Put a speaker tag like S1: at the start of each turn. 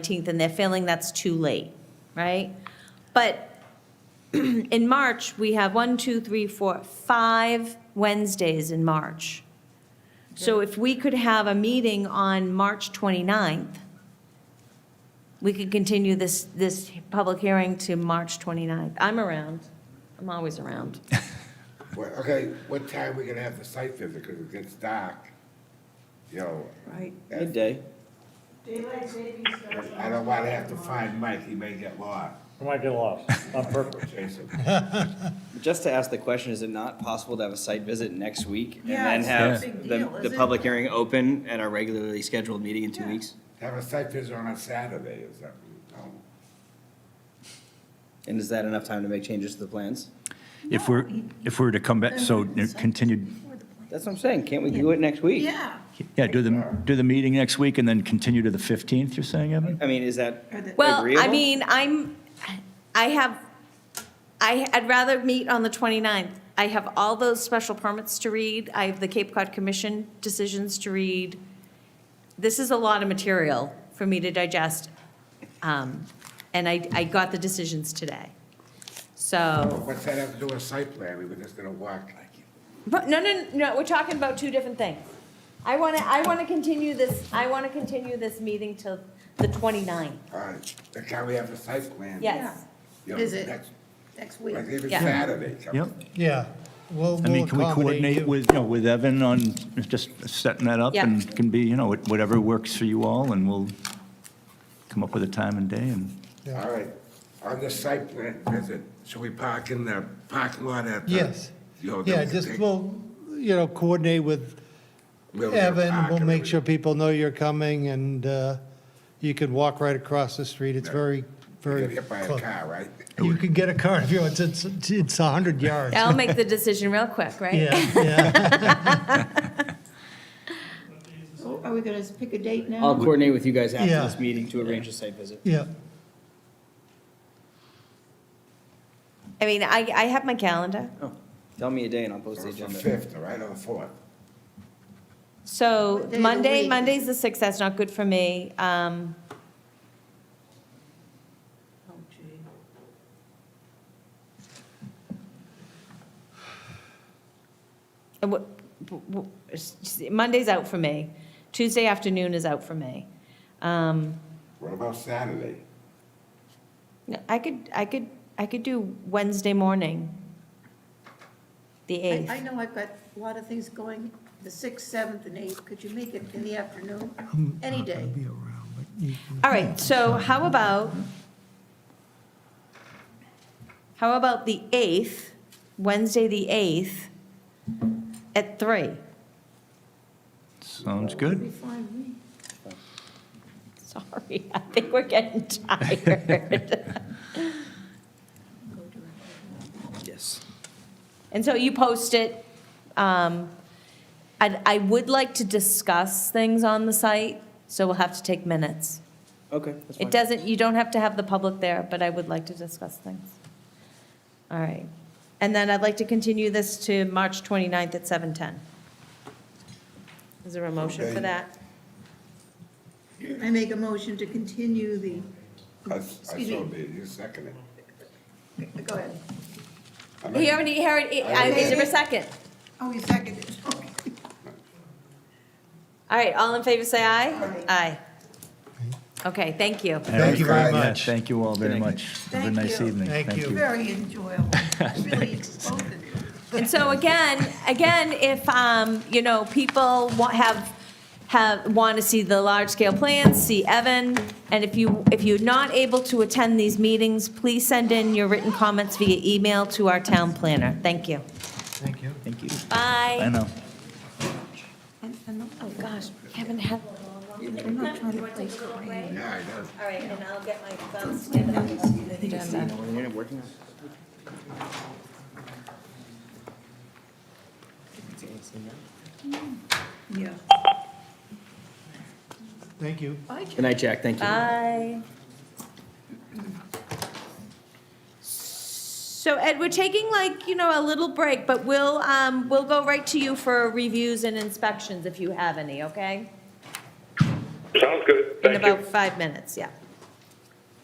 S1: 19th and they're feeling that's too late, right? But in March, we have one, two, three, four, five Wednesdays in March. So if we could have a meeting on March 29th, we could continue this, this public hearing to March 29th. I'm around. I'm always around.
S2: Well, okay, what time we gonna have the site visit, because it gets dark, you know,
S3: Right.
S4: Midday.
S5: Daylight savings starts
S2: I don't wanna have to find Mike, he may get lost,
S6: I might get lost on purpose.
S2: Jason.
S4: Just to ask the question, is it not possible to have a site visit next week? and
S3: Yeah,
S4: then
S3: it's
S4: have
S3: not a big
S4: the-
S3: deal,
S4: The
S3: is it?
S4: public hearing open at our regularly scheduled meeting in two weeks?
S2: Have a site visit on a Saturday or something, you know?
S4: And is that enough time to make changes to the plans?
S7: If we're, if we were to come back, so continued,
S4: That's what I'm saying, can't we do it next week?
S3: Yeah.
S7: yeah, do the, do the meeting next week and then continue to the 15th, you're saying, Evan?
S4: I mean, is that
S3: Or the-
S1: Well, I
S4: Agreeable?
S1: mean, I'm, I have, I, I'd rather meet on the 29th. I have all those special permits to read. I have the Cape Cod Commission decisions to read. This is a lot of material for me to digest. Um, And I, I got the decisions today. So,
S2: What's that have to do with site plan, we were just gonna walk,
S1: but no, no, no, we're talking about two different things. I want to, I want to continue this, I want to continue this meeting till the 29th.
S2: uh, then can we have the site plan?
S1: Yes.
S2: you know,
S3: Is it
S2: next-
S3: Next week.
S2: Like even
S1: Yeah.
S2: Saturday, come-
S7: Yep.
S8: Yeah, we'll,
S7: I
S8: we'll
S7: mean, can we
S8: accommodate
S7: coordinate
S8: you.
S7: with, you know, with Evan on just setting that up?
S1: Yeah.
S7: And can be, you know, whatever works for you all, and we'll come up with a time and day and.
S8: Yeah.
S2: all right, on the site plan visit, should we park in the parking lot at the?
S8: Yes,
S2: you know,
S8: yeah,
S2: the-
S8: just,
S2: the-
S8: we'll, you know, coordinate with
S2: where we're gonna
S8: Evan,
S2: park
S8: we'll
S2: and
S8: make sure
S2: everything.
S8: people know you're coming, and uh, you can walk right across the street, it's very,
S2: Get
S8: very
S2: hit by a
S8: close.
S2: car, right?
S8: You can get a car if you want, it's, it's it's 100 yards.
S1: I'll make the decision real quick, right?
S8: Yeah, yeah,
S3: So Are we gonna pick a date
S4: I'll
S3: now?
S4: coordinate with you guys after
S8: Yeah.
S4: this meeting to arrange a site visit.
S8: yeah.
S1: I mean, I, I have my calendar.
S4: Oh, Tell me a day and I'll post
S2: Or
S4: the
S2: the
S4: agenda.
S2: fifth, all right, or the fourth?
S1: So
S3: What day of the
S1: Monday,
S3: week?
S1: Monday's the 6th, that's not good for me. Um,
S3: Oh, gee.
S1: and what- w- w- s- Monday's out for me. Tuesday afternoon is out for me. Um,
S2: What about Saturday?
S1: no, I could, I could, I could do Wednesday morning, the
S3: I, I
S1: 8th.
S3: know I've got a lot of things going, the sixth, seventh, and eighth, could you make it in the afternoon? Any day.
S8: Be around, but you can-
S1: All right, so how about, how about the 8th, Wednesday, the 8th, at 3?
S7: Sounds
S3: Be
S7: good.
S3: fine with me.
S1: Sorry, I think we're getting tired.
S3: Go to it.
S4: Yes.
S1: And so you post it. um, I I would like to discuss things on the site, so we'll have to take minutes.
S4: Okay, that's fine.
S1: It doesn't, you don't have to have the public there, but I would like to discuss things. All right. And then I'd like to continue this to March 29th at 7:10. Is there a motion for
S2: Okay.
S1: that?
S3: I make a motion to continue the,
S2: I, I saw
S3: Excuse me.
S2: that, you second it.
S3: go ahead.
S2: I mean,
S1: He already, he already, I- is there a second?
S3: Oh, you seconded it, okay.
S1: All right, all in favor, say aye.
S3: Aye.
S1: Aye. Okay, thank you.
S8: Thank you very
S2: Yeah,
S7: Yeah,
S8: much.
S7: Thank you all very much. Have a
S3: Thank
S7: nice
S3: you.
S7: evening.
S8: Thank you.
S3: Very enjoyable, really, both of you.
S1: And so again, again, if, um, you know, people wa- have, have, want to see the large-scale plans, see Evan, and if you, if you're not able to attend these meetings, please send in your written comments via email to our town planner. Thank you.
S8: Thank you.
S7: Thank you. I
S1: Bye.
S7: know.
S1: Oh, gosh, we haven't had.
S3: I'm not trying to play screen.
S2: Yeah, I know.
S1: All right, and I'll get my thumbs stand up.
S3: uh,
S1: Agenda.
S4: We're working on it.
S3: Yeah.
S8: Thank you.
S3: I can
S4: Good night, Jack, thank you.
S1: Bye. So Ed, we're taking like, you know, a little break, but we'll, um, we'll go right to you for reviews and inspections if you have any, okay?
S9: Sounds good,
S1: In
S9: thank you.
S1: about five minutes, yeah.